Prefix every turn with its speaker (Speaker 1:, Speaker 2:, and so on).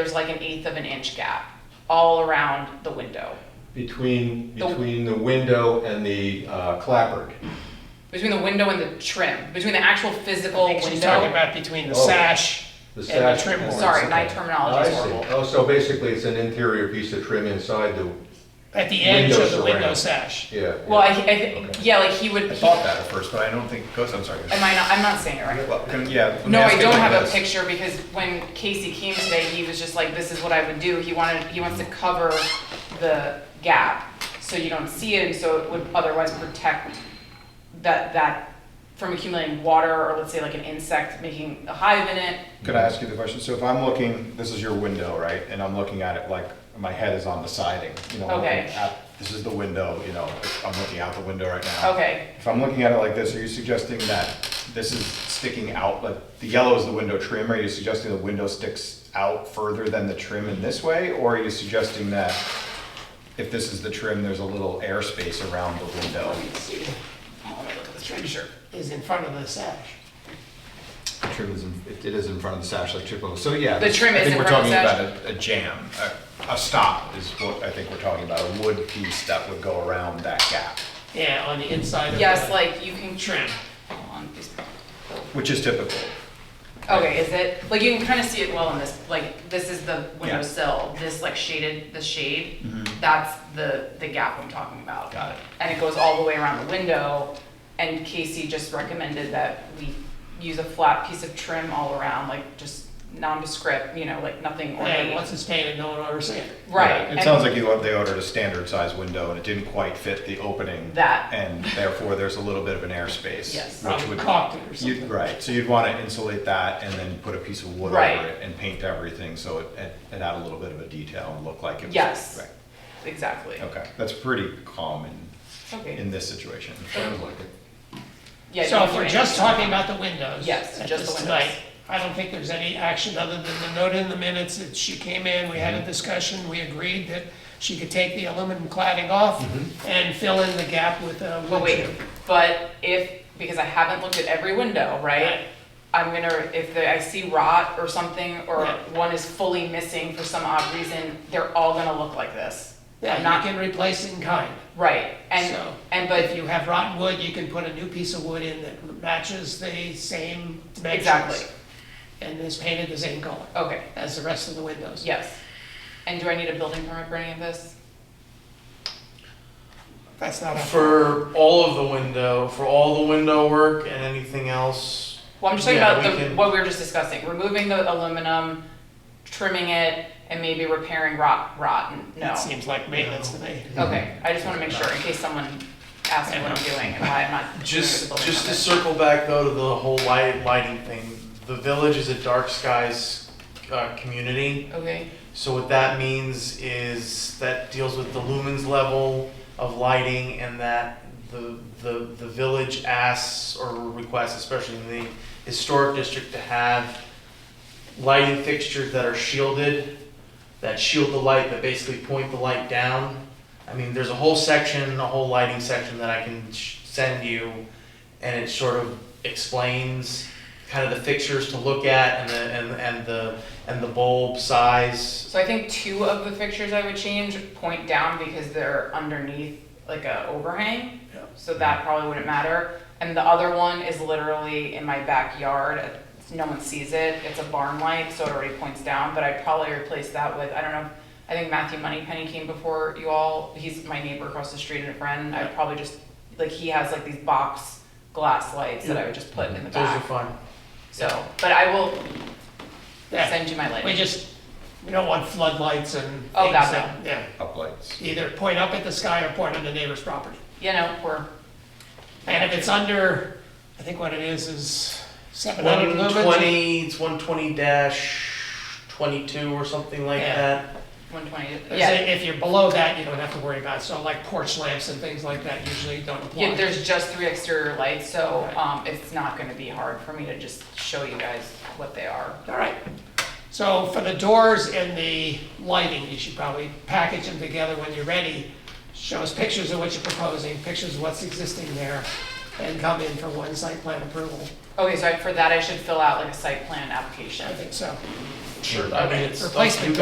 Speaker 1: there's like an eighth of an inch gap all around the window,
Speaker 2: Between,
Speaker 1: The-
Speaker 2: between the window and the uh, clapboard.
Speaker 1: between the window and the trim, between the actual physical
Speaker 3: I think she's talking
Speaker 1: window.
Speaker 3: about between the
Speaker 2: Oh.
Speaker 3: sash
Speaker 2: The
Speaker 3: and the
Speaker 2: sash-
Speaker 3: trim board.
Speaker 1: Sorry, my
Speaker 2: Oh,
Speaker 1: terminology
Speaker 2: I
Speaker 1: is
Speaker 2: see.
Speaker 1: horrible.
Speaker 2: Oh, so basically it's an interior piece of trim inside the,
Speaker 3: At the edge
Speaker 2: Window
Speaker 3: of the window
Speaker 2: surround.
Speaker 3: sash.
Speaker 2: yeah. yeah.
Speaker 1: Well, I, I,
Speaker 2: Okay.
Speaker 1: yeah, like he would, he-
Speaker 4: I thought that at first, but I don't think it goes, I'm sorry.
Speaker 1: am I not, I'm not saying it right.
Speaker 4: Well, can- Yeah. let me
Speaker 1: No,
Speaker 4: ask
Speaker 1: I
Speaker 4: it
Speaker 1: don't
Speaker 4: like
Speaker 1: have a
Speaker 4: this.
Speaker 1: picture because when Casey came today, he was just like, this is what I would do. He wanted, he wants to cover the gap so you don't see it and so it would otherwise protect that, that from accumulating water or let's say like an insect making a hive in it.
Speaker 4: Could I ask you the question? So if I'm looking, this is your window, right? And I'm looking at it like, my head is on the siding, you know? looking
Speaker 1: Okay.
Speaker 4: at- This is the window, you know, I'm looking out the window right now.
Speaker 1: Okay,
Speaker 4: If I'm looking at it like this, are you suggesting that this is sticking out, like, the yellow is the window trim? Are you suggesting the window sticks out further than the trim in this way? Or are you suggesting that if this is the trim, there's a little airspace around the window?
Speaker 1: Oh,
Speaker 3: The treasure is in front of the sash.
Speaker 4: trim is in, it it is in front of the sash like triple. So yeah,
Speaker 1: The
Speaker 4: this-
Speaker 1: trim is in front of the
Speaker 4: I think we're talking about a, a jam, a, a stop is what I think we're talking about, a wood piece that would go around that gap,
Speaker 3: Yeah, on the inside of the.
Speaker 1: yes, like you can trim.
Speaker 3: Trim.
Speaker 1: Hold on, please.
Speaker 4: which is typical.
Speaker 1: Okay, is it, like you can kind of see it well in this, like, this is the window
Speaker 4: Yeah. Mm-hmm.
Speaker 1: sill, this like shaded, the shade, that's the, the gap I'm talking about.
Speaker 4: Got it.
Speaker 1: And it goes all the way around the window, and Casey just recommended that we use a flat piece of trim all around, like just nondescript, you know, like nothing
Speaker 3: And once
Speaker 1: ornate.
Speaker 3: it's painted, no one will ever see it.
Speaker 1: Right.
Speaker 4: Yeah,
Speaker 1: and-
Speaker 4: It sounds like you, want- they ordered a standard size window and it didn't quite fit the opening.
Speaker 1: That.
Speaker 4: And therefore, there's a little bit of an airspace.
Speaker 1: Yes.
Speaker 4: Which
Speaker 3: Probably
Speaker 4: would,
Speaker 3: caulked it or
Speaker 4: you'd,
Speaker 3: something.
Speaker 4: right, so you'd want to insulate that and then put a piece of wood over
Speaker 1: Right.
Speaker 4: it and paint everything, so it, it it had a little bit of a detail and looked like it was.
Speaker 1: Yes,
Speaker 4: Right,
Speaker 1: exactly.
Speaker 4: okay, that's pretty common in
Speaker 1: Okay,
Speaker 4: this situation.
Speaker 2: Sounds like it.
Speaker 1: yeah.
Speaker 3: So
Speaker 1: you
Speaker 3: if
Speaker 1: can
Speaker 3: we're
Speaker 1: make-
Speaker 3: just talking about the windows.
Speaker 1: Yes,
Speaker 3: at
Speaker 1: just
Speaker 3: this
Speaker 1: the windows.
Speaker 3: tonight, I don't think there's any action other than the note in the minutes that she came in, we
Speaker 4: Mm-hmm.
Speaker 3: had a discussion, we agreed that she could take the aluminum cladding off
Speaker 4: Mm-hmm.
Speaker 3: and fill in the gap with a wood
Speaker 1: But wait,
Speaker 3: chip.
Speaker 1: but if, because I haven't looked at every window, right?
Speaker 3: Right.
Speaker 1: I'm gonna, if the- I see rot or something, or
Speaker 3: Yeah.
Speaker 1: one is fully missing for some odd reason, they're all gonna look like this.
Speaker 3: Yeah,
Speaker 1: I'm
Speaker 3: you
Speaker 1: not,
Speaker 3: can replace it in kind.
Speaker 1: right, and,
Speaker 3: So,
Speaker 1: and
Speaker 3: If
Speaker 1: but,
Speaker 3: you have rotten wood, you can put a new piece of wood in that matches the same dimensions.
Speaker 1: Exactly.
Speaker 3: And is painted the same color
Speaker 1: okay,
Speaker 3: as the rest of the windows.
Speaker 1: yes. And do I need a building permit for any of this?
Speaker 3: That's not a,
Speaker 5: For all of the window, for all the window work and anything else,
Speaker 1: Well, I'm just talking
Speaker 5: Yeah,
Speaker 1: about
Speaker 5: we
Speaker 1: the,
Speaker 5: can-
Speaker 1: what we were just discussing, removing the aluminum, trimming it, and maybe repairing rot, rotten, no.
Speaker 3: that seems like maintenance to me.
Speaker 1: Okay, I just wanna make sure, in case someone asks me what I'm doing and why I'm not. doing the
Speaker 5: just
Speaker 1: building
Speaker 5: just to
Speaker 1: permit.
Speaker 5: circle back though to the whole light lighting thing. The village is a dark skies uh, community,
Speaker 1: Okay.
Speaker 5: so what that means is that deals with the lumens level of lighting and that the the the village asks or requests, especially in the historic district, to have lighting fixtures that are shielded, that shield the light, that basically point the light down. I mean, there's a whole section, a whole lighting section that I can sh- send you, and it sort of explains kind of the fixtures to look at and the and, and the and the bulb size.
Speaker 1: So I think two of the fixtures I would change point down because they're underneath like a overhang.
Speaker 3: Yeah.
Speaker 1: So that probably wouldn't matter. And the other one is literally in my backyard. No one sees it. It's a barn light, so it already points down. But I'd probably replace that with, I don't know, I think Matthew Moneypenny came before you all. He's my neighbor across the street and a friend. I'd probably just, like, he has like these box glass lights that I would just put in the
Speaker 5: Those are
Speaker 1: back.
Speaker 5: fun.
Speaker 1: So, but I will
Speaker 3: Yeah,
Speaker 1: send you my
Speaker 3: We
Speaker 1: lighting.
Speaker 3: just, we don't want floodlights and things
Speaker 1: Oh, God,
Speaker 3: that, yeah.
Speaker 4: Uplights.
Speaker 3: Either point up at the sky or point on the neighbor's property.
Speaker 1: You know, we're,
Speaker 3: And if it's under, I think what it is is seven hundred lumens.
Speaker 5: 120, it's 120 dash 22 or something like
Speaker 3: Yeah.
Speaker 5: that.
Speaker 1: 120,
Speaker 3: Because
Speaker 1: yeah.
Speaker 3: If you're below that, you don't have to worry about it. So like porch lamps and things like that usually don't apply.
Speaker 1: Yeah, there's just three exterior lights, so,
Speaker 3: Right.
Speaker 1: um, it's not gonna be hard for me to just show you guys what they are.
Speaker 3: All right. So for the doors and the lighting, you should probably package them together when you're ready. Show us pictures of what you're proposing, pictures of what's existing there, and come in for one site plan approval.
Speaker 1: Okay, so I- for that, I should fill out like a site plan application.
Speaker 3: I think so.
Speaker 6: Sure. I mean, it's.
Speaker 5: Replacement